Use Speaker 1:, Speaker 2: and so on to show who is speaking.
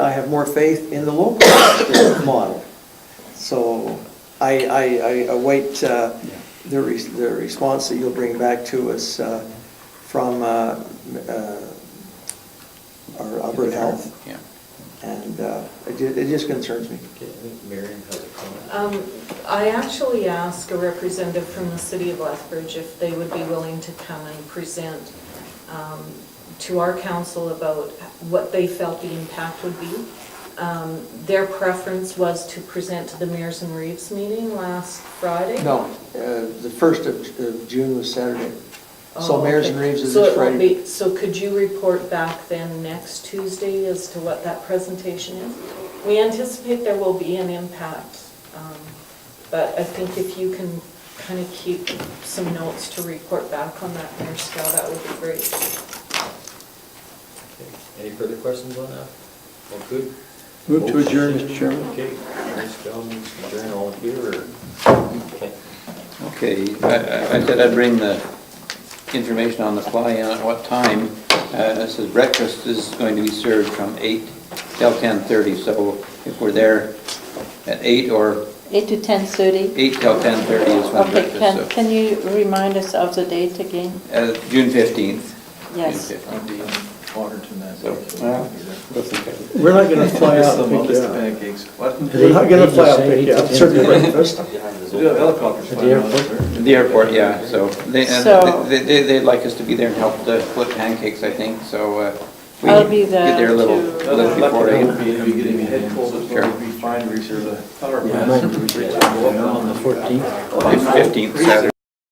Speaker 1: more faith in the local model. So I, I, I await uh, the, re- the response that you'll bring back to us uh, from uh, m- uh, our Alberta Health.
Speaker 2: Yeah.
Speaker 1: And uh, it ju- it just concerns me.
Speaker 3: Okay, I think Miriam has a comment.
Speaker 4: Um, I actually asked a representative from the city of Lethbridge if they would be willing to come and present um, to our council about what they felt the impact would be. Um, Their preference was to present to the Mears and Reeves meeting last Friday.
Speaker 1: No, uh, the first of of June was Saturday. So
Speaker 4: Oh,
Speaker 1: Mayor's and
Speaker 4: okay.
Speaker 1: Reeves is
Speaker 4: So
Speaker 1: this
Speaker 4: it won't
Speaker 1: Friday.
Speaker 4: be- So could you report back then next Tuesday as to what that presentation is? We anticipate there will be an impact, um, but I think if you can kind of keep some notes to report back on that, Mayor Scow, that would be great.
Speaker 3: Okay, Any further questions on that? All good?
Speaker 2: Move to adjourn,
Speaker 3: Motion.
Speaker 2: Mr. Chairman.
Speaker 3: Okay, Ms. Jones, adjourn, all in favor? Okay.
Speaker 2: Okay, I I- I said I'd bring the information on the fly and at what time. Uh, It says breakfast is going to be served from 8 till 10:30, so if we're there at 8 or
Speaker 5: 8 to 10:30?
Speaker 2: 8 till 10:30 is when
Speaker 5: Okay, can,
Speaker 2: breakfast, so.
Speaker 5: can you remind us of the date again?
Speaker 2: Uh, June 15th.
Speaker 5: Yes.
Speaker 2: June 15th.
Speaker 6: I'd be honored to that.
Speaker 2: So, well, we'll think of it.
Speaker 7: We're not gonna fly out
Speaker 6: Just the
Speaker 7: and pick
Speaker 6: longest
Speaker 7: you up.
Speaker 6: pancakes. What?
Speaker 7: We're not gonna fly out and pick you up, serve you breakfast.
Speaker 3: Behind this
Speaker 6: We do have
Speaker 3: open-
Speaker 6: helicopters flying around us, sir.
Speaker 2: The airport, yeah, so they, and
Speaker 5: So-
Speaker 2: they- they- they'd like us to be there and help to flip pancakes, I think, so. uh, we
Speaker 5: I'll be
Speaker 2: Get there a
Speaker 5: there
Speaker 2: little
Speaker 5: to-
Speaker 6: That's
Speaker 2: little
Speaker 6: what
Speaker 2: before
Speaker 6: lucky
Speaker 2: 8.
Speaker 6: would be, it'd be getting head cold, it's
Speaker 2: Sure.
Speaker 6: gonna be fine, reach the power
Speaker 7: Yeah,
Speaker 6: plant.
Speaker 7: on the
Speaker 6: Reach it, go up and on the-
Speaker 7: Fourteenth.
Speaker 2: Fifteenth, Saturday.